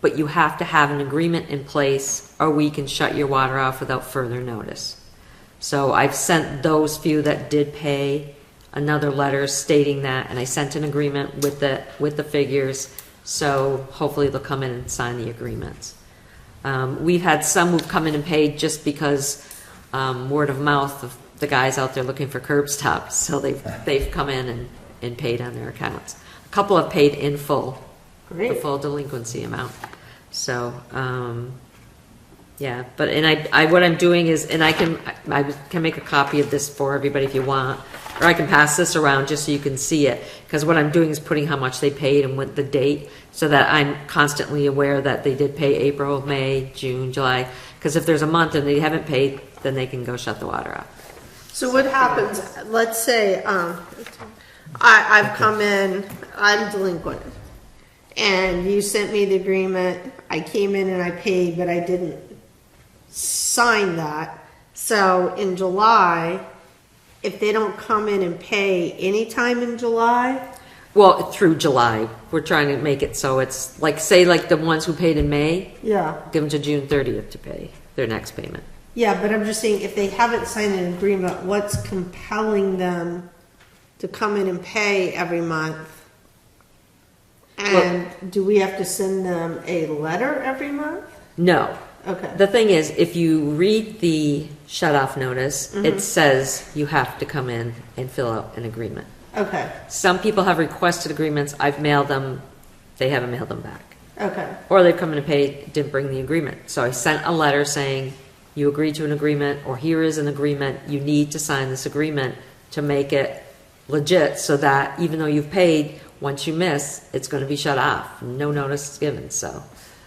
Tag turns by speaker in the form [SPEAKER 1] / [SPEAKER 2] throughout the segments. [SPEAKER 1] but you have to have an agreement in place, or we can shut your water off without further notice. So I've sent those few that did pay another letter stating that, and I sent an agreement with the, with the figures, so hopefully they'll come in and sign the agreements. Um, we've had some who've come in and paid just because, um, word of mouth of the guys out there looking for curb stops, so they've, they've come in and, and paid on their accounts. A couple have paid in full, the
[SPEAKER 2] Great.
[SPEAKER 1] full delinquency amount, so, um, yeah, but, and I, I, what I'm doing is, and I can, I can make a copy of this for everybody if you want, or I can pass this around just so you can see it, because what I'm doing is putting how much they paid and what the date, so that I'm constantly aware that they did pay April, May, June, July, because if there's a month and they haven't paid, then they can go shut the water off.
[SPEAKER 2] So what happens, let's say, um, I, I've come in, I'm delinquent, and you sent me the agreement, I came in and I paid, but I didn't sign that. So in July, if they don't come in and pay anytime in July,
[SPEAKER 1] Well, through July, we're trying to make it so it's, like, say, like the ones who paid in May,
[SPEAKER 2] yeah,
[SPEAKER 1] give them to June thirtieth to pay their next payment.
[SPEAKER 2] yeah, but I'm just saying, if they haven't signed an agreement, what's compelling them to come in and pay every month? And do we have to send them a letter every month?
[SPEAKER 1] No,
[SPEAKER 2] Okay,
[SPEAKER 1] The thing is, if you read the shut-off notice, it says you have to come in and fill out an agreement.
[SPEAKER 2] okay,
[SPEAKER 1] Some people have requested agreements, I've mailed them, they haven't mailed them back.
[SPEAKER 2] okay,
[SPEAKER 1] Or they've come in and paid, didn't bring the agreement. So I sent a letter saying, you agreed to an agreement, or here is an agreement, you need to sign this agreement to make it legit, so that even though you've paid, once you miss, it's gonna be shut off, no notice is given, so.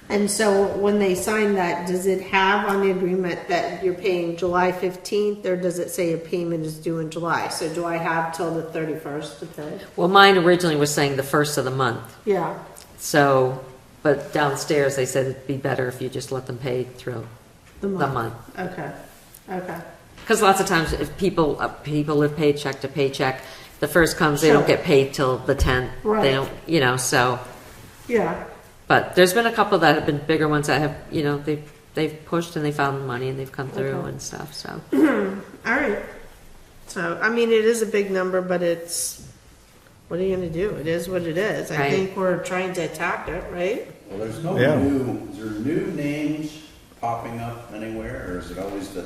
[SPEAKER 2] and so when they sign that, does it have on the agreement that you're paying July fifteenth, or does it say your payment is due in July? So do I have till the thirty-first to pay?
[SPEAKER 1] Well, mine originally was saying the first of the month,
[SPEAKER 2] Yeah,
[SPEAKER 1] So, but downstairs, they said it'd be better if you just let them pay through
[SPEAKER 2] The
[SPEAKER 1] the
[SPEAKER 2] month.
[SPEAKER 1] month.
[SPEAKER 2] okay, okay,
[SPEAKER 1] Because lots of times, if people, uh, people live paycheck to paycheck, the first comes, they don't
[SPEAKER 2] Sure.
[SPEAKER 1] get paid till the tenth.
[SPEAKER 2] Right.
[SPEAKER 1] They don't, you know, so,
[SPEAKER 2] yeah,
[SPEAKER 1] but there's been a couple that have been bigger ones that have, you know, they, they've pushed and they found the money and they've come through
[SPEAKER 2] Okay.
[SPEAKER 1] and stuff, so.
[SPEAKER 2] all right. So, I mean, it is a big number, but it's, what are you gonna do? It is what it is. I
[SPEAKER 1] Right.
[SPEAKER 2] think we're trying to attack it, right?
[SPEAKER 3] Well, there's no
[SPEAKER 4] Yeah.
[SPEAKER 3] new, is there new names popping up anywhere, or is it always the,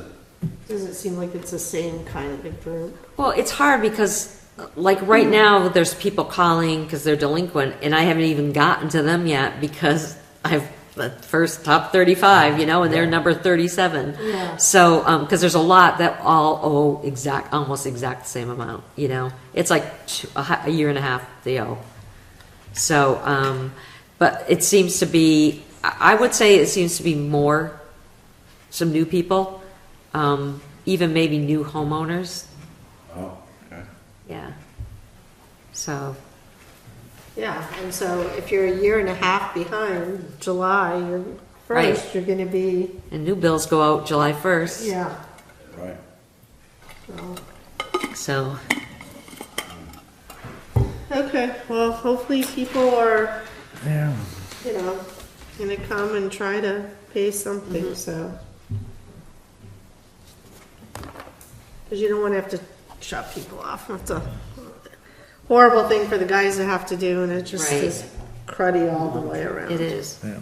[SPEAKER 2] Doesn't seem like it's the same kind of a group.
[SPEAKER 1] Well, it's hard because, like, right now, there's people calling because they're delinquent, and I haven't even gotten to them yet because I've the first top 35, you know, and they're number 37.
[SPEAKER 2] Yeah.
[SPEAKER 1] So, because there's a lot that all owe exact, almost exact same amount, you know? It's like two, a, hi- a year and a half they owe. So, um, but it seems to be, I I would say it seems to be more some new people, um, even maybe new homeowners
[SPEAKER 3] oh, okay.
[SPEAKER 1] yeah. So,
[SPEAKER 2] Yeah, and so if you're a year and a half behind July, you're
[SPEAKER 1] Right.
[SPEAKER 2] first, you're gonna be,
[SPEAKER 1] and new bills go out July 1st.
[SPEAKER 2] yeah.
[SPEAKER 3] right.
[SPEAKER 2] so.
[SPEAKER 1] So,
[SPEAKER 2] Okay, well, hopefully people are,
[SPEAKER 4] Yeah.
[SPEAKER 2] you know, gonna come and try to pay something,
[SPEAKER 1] Mm-hmm.
[SPEAKER 2] so. Cause you don't wanna have to shut people off, that's a horrible thing for the guys to have to do, and it just
[SPEAKER 1] Right.
[SPEAKER 2] is cruddy all the way around.
[SPEAKER 1] it is.
[SPEAKER 4] Yeah.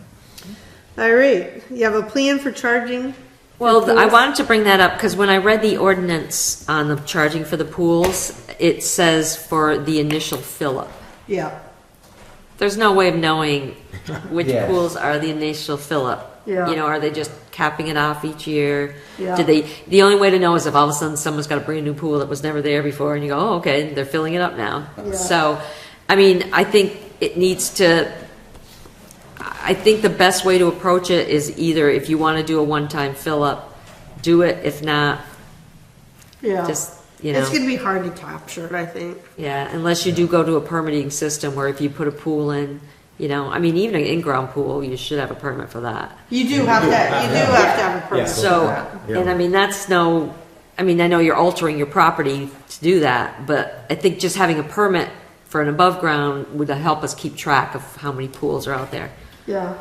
[SPEAKER 2] All right, you have a plan for charging?
[SPEAKER 1] Well, th- I
[SPEAKER 2] pools?
[SPEAKER 1] wanted to bring that up because when I read the ordinance on the charging for the pools, it says for the initial fill-up.
[SPEAKER 2] Yeah,
[SPEAKER 1] There's no way of knowing which
[SPEAKER 4] Yes.
[SPEAKER 1] pools are the initial fill-up.
[SPEAKER 2] Yeah.
[SPEAKER 1] You know, are they just capping it off each year?
[SPEAKER 2] Yeah.
[SPEAKER 1] Do they, the only way to know is if all of a sudden someone's got a brand new pool that was never there before and you go, oh, okay, they're filling it up now.
[SPEAKER 2] Yeah.
[SPEAKER 1] So, I mean, I think it needs to, I think the best way to approach it is either if you want to do a one-time fill-up, do it. If not,
[SPEAKER 2] yeah.
[SPEAKER 1] just, you
[SPEAKER 2] It's
[SPEAKER 1] know,
[SPEAKER 2] gonna be hard to capture, I think.
[SPEAKER 1] yeah, unless you do go to a permitting system where if you put a pool in, you know, I mean, even an in-ground pool, you should have a permit for that.
[SPEAKER 2] You do have to, you do have to have a permit.
[SPEAKER 1] So,
[SPEAKER 4] Yeah.
[SPEAKER 1] and I mean, that's no, I mean, I know you're altering your property to do that, but I think just having a permit for an above ground would help us keep track of how many pools are out there.
[SPEAKER 2] Yeah.